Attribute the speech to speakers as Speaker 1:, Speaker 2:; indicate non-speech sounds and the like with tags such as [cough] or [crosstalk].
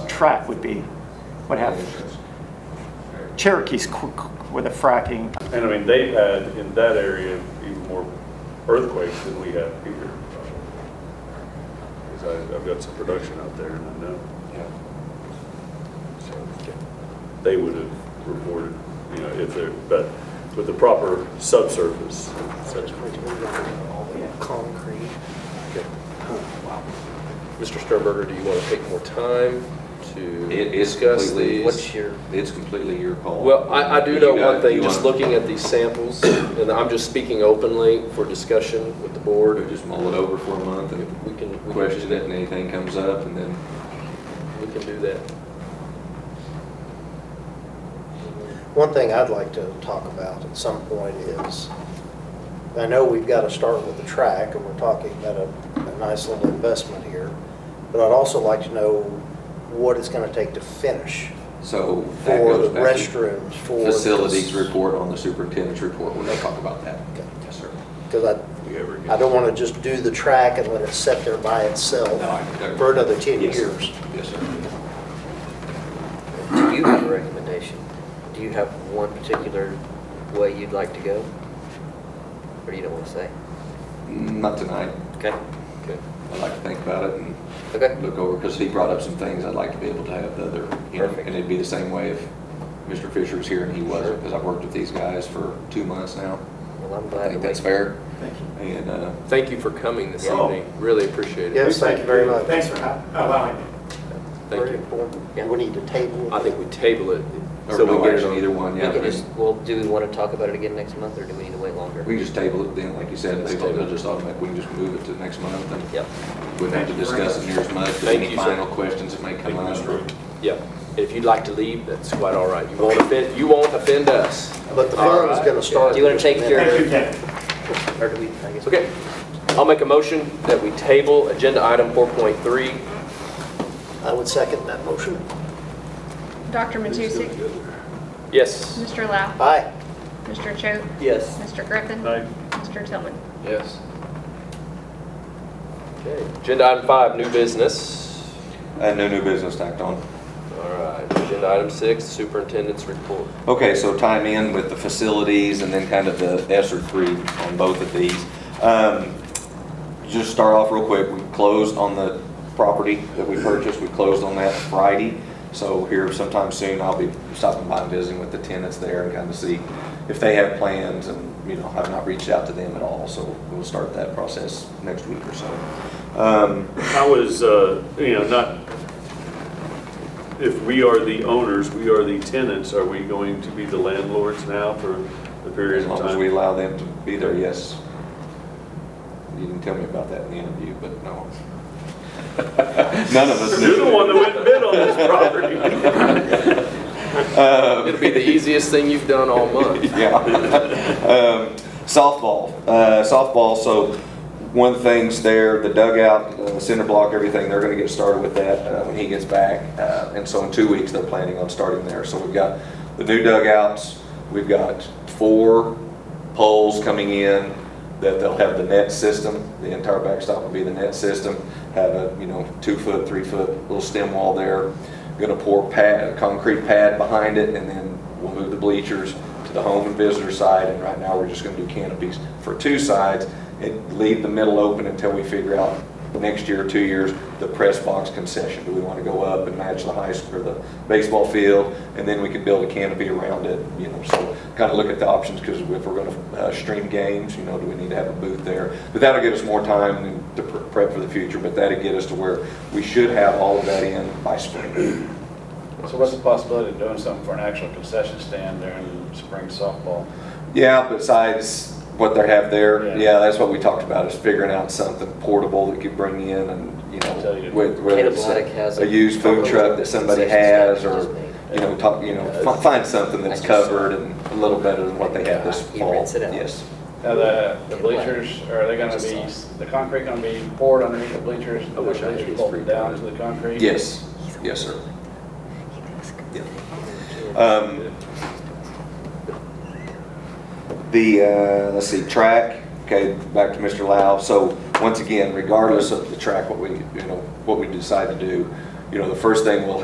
Speaker 1: frack would be, what happens. Cherokee's quick with a fracking.
Speaker 2: And I mean, they've had in that area even more earthquakes than we have here. Because I've got some production out there and I know. So, They would have reported, you know, if they're, but with the proper subsurface, such.
Speaker 3: Concrete.
Speaker 4: Mr. Sternberger, do you want to take more time to
Speaker 5: It is
Speaker 4: discuss
Speaker 5: completely,
Speaker 4: these?
Speaker 5: what's your, it's completely your call.
Speaker 4: Well, I, I do
Speaker 5: You
Speaker 4: know
Speaker 5: got-
Speaker 4: one thing,
Speaker 5: you
Speaker 4: just
Speaker 5: wanna-
Speaker 4: looking at these samples, and I'm just speaking openly for discussion with the board.
Speaker 5: Or just mull it over for a month and
Speaker 4: We can, we can do
Speaker 5: question it
Speaker 4: that.
Speaker 5: and anything comes up and then
Speaker 4: We can do that.
Speaker 3: One thing I'd like to talk about at some point is, I know we've got to start with the track, and we're talking about a, a nice little investment here, but I'd also like to know what it's going to take to finish
Speaker 5: So that
Speaker 3: for the
Speaker 5: goes back to
Speaker 3: restrooms, for. this-
Speaker 5: facilities report on the superintendent's report. We're going to talk about that.
Speaker 3: Okay.
Speaker 5: Yes, sir.
Speaker 3: Because I,
Speaker 4: Do you ever
Speaker 3: I
Speaker 4: get-
Speaker 3: don't want to just do the track and let it sit there by itself
Speaker 5: No, I-
Speaker 3: for another 10
Speaker 5: Yes, sir.
Speaker 3: years.
Speaker 5: Yes, sir.
Speaker 6: Do you have a recommendation? Do you have one particular way you'd like to go? Or you don't want to say?
Speaker 5: Not tonight.
Speaker 6: Okay,
Speaker 4: Okay.
Speaker 5: I'd like to think about it and
Speaker 6: Okay.
Speaker 5: look over, because he brought up some things I'd like to be able to have the other, you know,
Speaker 6: Perfect.
Speaker 5: and it'd be the same way if Mr. Fisher was here and he wasn't, because I've worked with these guys for two months now.
Speaker 6: well, I'm
Speaker 5: I
Speaker 6: glad to
Speaker 5: think
Speaker 6: make.
Speaker 5: that's fair.
Speaker 1: Thank you.
Speaker 5: And, uh,
Speaker 4: Thank you for coming this
Speaker 1: Yeah.
Speaker 4: evening, really appreciate it.
Speaker 3: Yes, thank you very much.
Speaker 1: Thanks for ha- allowing me.
Speaker 4: Thank
Speaker 3: Very
Speaker 4: you.
Speaker 3: important.
Speaker 6: Yeah.
Speaker 3: We need to table it.
Speaker 4: I think we table it.
Speaker 5: or
Speaker 4: so we
Speaker 5: no
Speaker 4: get it
Speaker 5: action,
Speaker 4: on-
Speaker 5: either one,
Speaker 6: We
Speaker 5: yeah.
Speaker 6: can just, well, do we want to talk about it again next month, or do we need to wait longer?
Speaker 5: We can just table it then, like you said,
Speaker 4: Let's
Speaker 5: people
Speaker 4: table
Speaker 5: will
Speaker 4: it.
Speaker 5: just automatically, we can just move it to next month and
Speaker 6: Yep,
Speaker 5: wouldn't have to discuss it near as much. There's
Speaker 4: Thank
Speaker 5: any
Speaker 4: you, sir.
Speaker 5: final questions that may come up.
Speaker 4: Yeah, if you'd like to leave, that's quite all right. You won't offend, you won't offend us.
Speaker 3: But the
Speaker 4: All
Speaker 3: fun's
Speaker 4: right.
Speaker 3: going to start.
Speaker 6: Do you wanna take
Speaker 3: in a
Speaker 6: your-
Speaker 3: minute.
Speaker 1: Thank you, Ken.
Speaker 3: Or do we, I guess.
Speaker 4: Okay, I'll make a motion that we table agenda item 4.3.
Speaker 3: I would second that motion.
Speaker 7: Dr. Matusek,
Speaker 4: Yes.
Speaker 7: Mr. Lau,
Speaker 3: Aye.
Speaker 7: Mr. Choate,
Speaker 3: Yes.
Speaker 7: Mr. Griffin,
Speaker 2: Aye.
Speaker 7: Mr. Tillman.
Speaker 4: Yes. Okay, agenda item five, new business.
Speaker 5: Uh, no new business to act on.
Speaker 4: All right, agenda item six, superintendent's report.
Speaker 5: Okay, so time in with the facilities and then kind of the S or three on both of these. Um, Just start off real quick, we closed on the property that we purchased, we closed on that Friday. So here sometime soon, I'll be stopping by and visiting with the tenants there and kind of see if they have plans and, you know, I've not reached out to them at all, so we'll start that process next week or so. Um,
Speaker 2: I was, uh, you know, not, if we are the owners, we are the tenants, are we going to be the landlords now for the period
Speaker 5: As
Speaker 2: of
Speaker 5: long
Speaker 2: time?
Speaker 5: as we allow them to be there, yes. You didn't tell me about that in the interview, but
Speaker 2: [laughs]
Speaker 5: no. None of us
Speaker 2: You're the
Speaker 5: knew. [laughs]
Speaker 2: one that went and bid on this property.
Speaker 5: Um,
Speaker 4: It'll be the easiest thing you've done all month.
Speaker 5: [laughs] Yeah. Um, Softball, uh, softball, so one thing's there, the dugout, uh, cinder block, everything, they're gonna get started with that uh, when he gets back. Uh, And so in two weeks, they're planning on starting there. So we've got the new dugouts, we've got four poles coming in, that they'll have the net system, the entire backstop will be the net system, have a, you know, two-foot, three-foot little stem wall there, gonna pour pad, concrete pad behind it, and then we'll move the bleachers to the home and visitor side, and right now, we're just gonna do canopies for two sides, and leave the middle open until we figure out next year, two years, the press box concession. Do we want to go up and match the high school, or the baseball field? And then we could build a canopy around it, you know, so kind of look at the options, because if we're going to stream games, you know, do we need to have a booth there? But that'll give us more time and to pre- prep for the future, but that'd get us to where we should have all of that in by spring.
Speaker 8: So what's the possibility of doing something for an actual concession stand during spring softball?
Speaker 5: Yeah, besides what they have there,
Speaker 8: Yeah.
Speaker 5: yeah, that's what we talked about, is figuring out something portable that could bring in and, you
Speaker 8: Tell you
Speaker 5: know,
Speaker 8: to-
Speaker 5: with- whether it's
Speaker 6: Catablonic has
Speaker 5: a-
Speaker 6: a
Speaker 5: a used food truck that somebody has,
Speaker 6: concession stand
Speaker 5: or,
Speaker 6: that just
Speaker 5: you know, talk, you know, fi- find something that's
Speaker 6: I just-
Speaker 5: covered and a little better than what they had this
Speaker 6: He
Speaker 5: fall.
Speaker 6: rents it out.
Speaker 5: Yes.
Speaker 8: Now, the the bleachers, are they gonna be, the concrete gonna be poured underneath the bleachers?
Speaker 4: I wish I had
Speaker 8: The bleachers
Speaker 4: his
Speaker 8: bolted down into the concrete?
Speaker 5: Yes, yes, sir. Yeah. Um, The, uh, let's see, track, okay, back to Mr. Lau. So once again, regardless of the track, what we, you know, what we decide to do, you know, the first thing we'll